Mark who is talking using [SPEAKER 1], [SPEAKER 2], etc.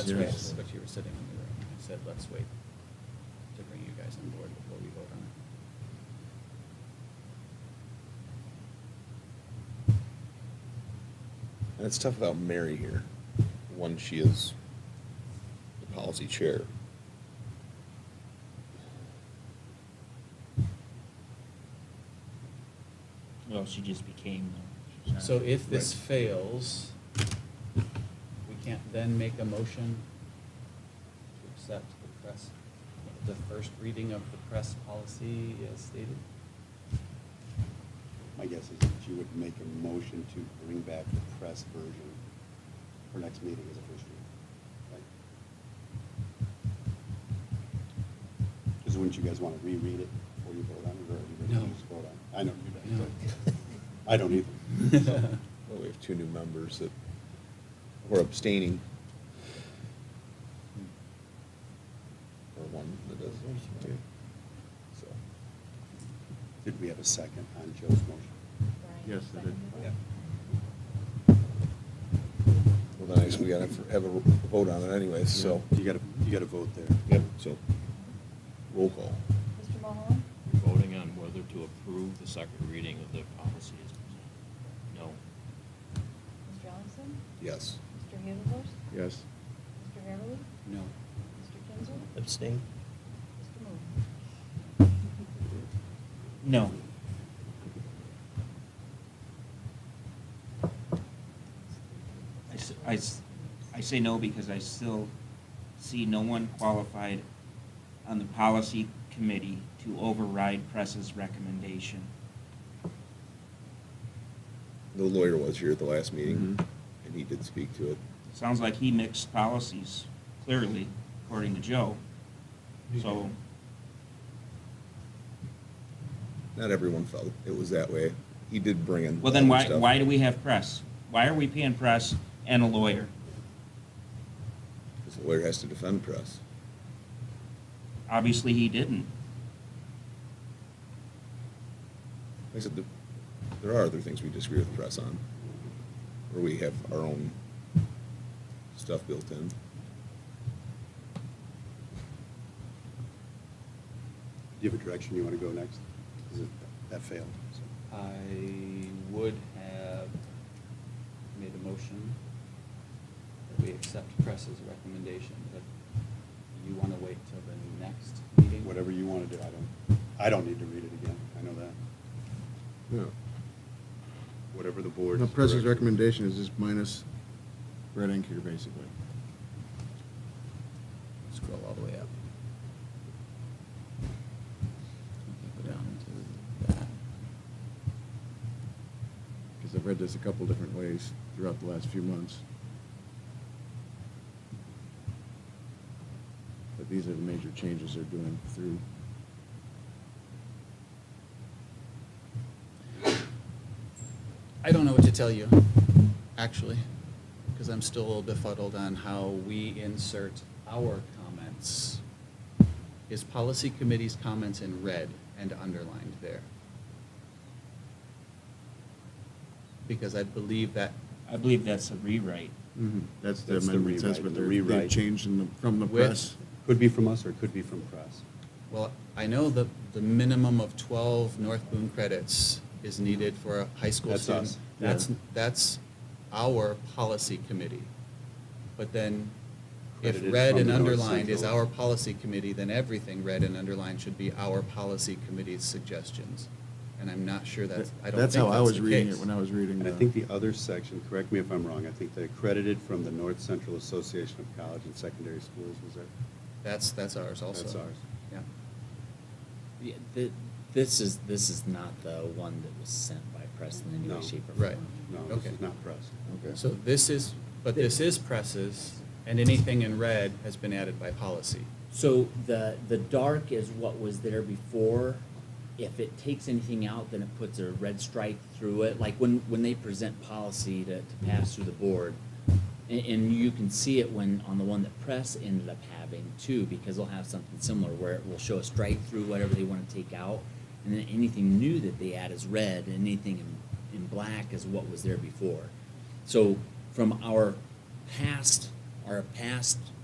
[SPEAKER 1] That's right,
[SPEAKER 2] Yes.
[SPEAKER 1] but you were sitting in the room, and I said, let's wait to bring you guys on board before we vote on it.
[SPEAKER 2] And it's tough about Mary here, when she is the policy chair.
[SPEAKER 3] Well, she just became. though. She's not-
[SPEAKER 1] So if this
[SPEAKER 2] Right.
[SPEAKER 1] fails, we can't then make a motion to accept the press, the first reading of the press policy as stated?
[SPEAKER 4] My guess is that you would make a motion to bring back the press version for next meeting as a first reading, right? Because wouldn't you guys want to reread it before you vote on it, or are you ready
[SPEAKER 1] No.
[SPEAKER 4] to just vote on it? I know you
[SPEAKER 1] No.
[SPEAKER 4] don't, but I don't either. So,
[SPEAKER 2] Well, we have two new members that were abstaining. Or one that is. yeah. So,
[SPEAKER 4] Did we have a second on Joe's motion?
[SPEAKER 5] Yes, it did.
[SPEAKER 4] Yeah.
[SPEAKER 2] well, then I guess we gotta have a vote on it anyways, so.
[SPEAKER 4] You got to, you got to vote there.
[SPEAKER 2] Yep, so, roll call.
[SPEAKER 5] Mr. Mahoney?
[SPEAKER 6] You're voting on whether to approve the second reading of the policy as presented. No.
[SPEAKER 5] Mr. Allison?
[SPEAKER 2] Yes.
[SPEAKER 5] Mr. Hazelworth?
[SPEAKER 2] Yes.
[SPEAKER 5] Mr. Harrowitz?
[SPEAKER 1] No.
[SPEAKER 5] Mr. Kinzer?
[SPEAKER 7] Abstain?
[SPEAKER 5] Mr. Moon?
[SPEAKER 3] No. I s- I s- I say no because I still see no one qualified on the policy committee to override press's recommendation.
[SPEAKER 2] The lawyer was here at the last meeting, and he did speak to it.
[SPEAKER 3] Sounds like he mixed policies, clearly, according to Joe. So,
[SPEAKER 2] Not everyone felt it was that way. He did bring in.
[SPEAKER 3] well then why,
[SPEAKER 2] other stuff.
[SPEAKER 3] why do we have press? Why are we paying press and a lawyer?
[SPEAKER 2] Because the lawyer has to defend press.
[SPEAKER 3] Obviously, he didn't.
[SPEAKER 2] Like I said, the- there are other things we disagree with press on, where we have our own stuff built in.
[SPEAKER 4] Do you have a direction you want to go next? Is it, that failed, so.
[SPEAKER 1] I would have made a motion that we accept press's recommendation, but you want to wait till the next meeting?
[SPEAKER 4] Whatever you want to do, I don't, I don't need to read it again, I know that.
[SPEAKER 8] No.
[SPEAKER 4] Whatever the board.
[SPEAKER 8] The president's recommendation is just minus red ink here, basically.
[SPEAKER 1] Scroll all the way up. Go down to that.
[SPEAKER 8] Because I've read this a couple different ways throughout the last few months. But these are the major changes they're doing through.
[SPEAKER 1] I don't know what to tell you, actually, because I'm still a little befuddled on how we insert our comments. Is policy committee's comments in red and underlined there? Because I believe that
[SPEAKER 3] I believe that's a rewrite.
[SPEAKER 8] That's the
[SPEAKER 4] That's the
[SPEAKER 8] amendment, that's
[SPEAKER 4] rewrite,
[SPEAKER 8] what
[SPEAKER 4] the
[SPEAKER 8] they're,
[SPEAKER 4] rewrite.
[SPEAKER 8] they've changed in the, from the
[SPEAKER 1] With-
[SPEAKER 8] press.
[SPEAKER 4] Could be from us or it could be from press.
[SPEAKER 1] Well, I know that the minimum of 12 North Boone credits is needed for a high school
[SPEAKER 4] That's
[SPEAKER 1] student.
[SPEAKER 4] us.
[SPEAKER 1] That's, that's our policy committee. But then, if
[SPEAKER 4] Credited
[SPEAKER 1] red
[SPEAKER 4] from
[SPEAKER 1] and
[SPEAKER 4] the North
[SPEAKER 1] underlined is
[SPEAKER 4] Central.
[SPEAKER 1] our policy committee, then everything red and underlined should be our policy committee's suggestions. And I'm not sure that's, I don't think that's
[SPEAKER 8] how I was
[SPEAKER 1] the
[SPEAKER 8] reading
[SPEAKER 1] case.
[SPEAKER 8] it when I was reading
[SPEAKER 4] And
[SPEAKER 8] the.
[SPEAKER 4] I think the other section, correct me if I'm wrong, I think they accredited from the North Central Association of College and Secondary Schools, was that?
[SPEAKER 1] That's, that's ours also.
[SPEAKER 4] That's ours.
[SPEAKER 1] Yeah.
[SPEAKER 7] Yeah, th- this is, this is not the one that was sent by press in any
[SPEAKER 4] No.
[SPEAKER 7] way, shape, or form.
[SPEAKER 1] Right.
[SPEAKER 4] No, this
[SPEAKER 1] Okay.
[SPEAKER 4] is not press.
[SPEAKER 8] Okay.
[SPEAKER 1] So this is, but this is presses, and anything in red has been added by policy.
[SPEAKER 7] So the, the dark is what was there before. If it takes anything out, then it puts a red stripe through it. Like when, when they present policy to, to pass through the board, and, and you can see it when, on the one that press ended up having too, because they'll have something similar where it will show a stripe through whatever they want to take out. And then anything new that they add is red, and anything in, in black is what was there before. So from our past
[SPEAKER 3] are a past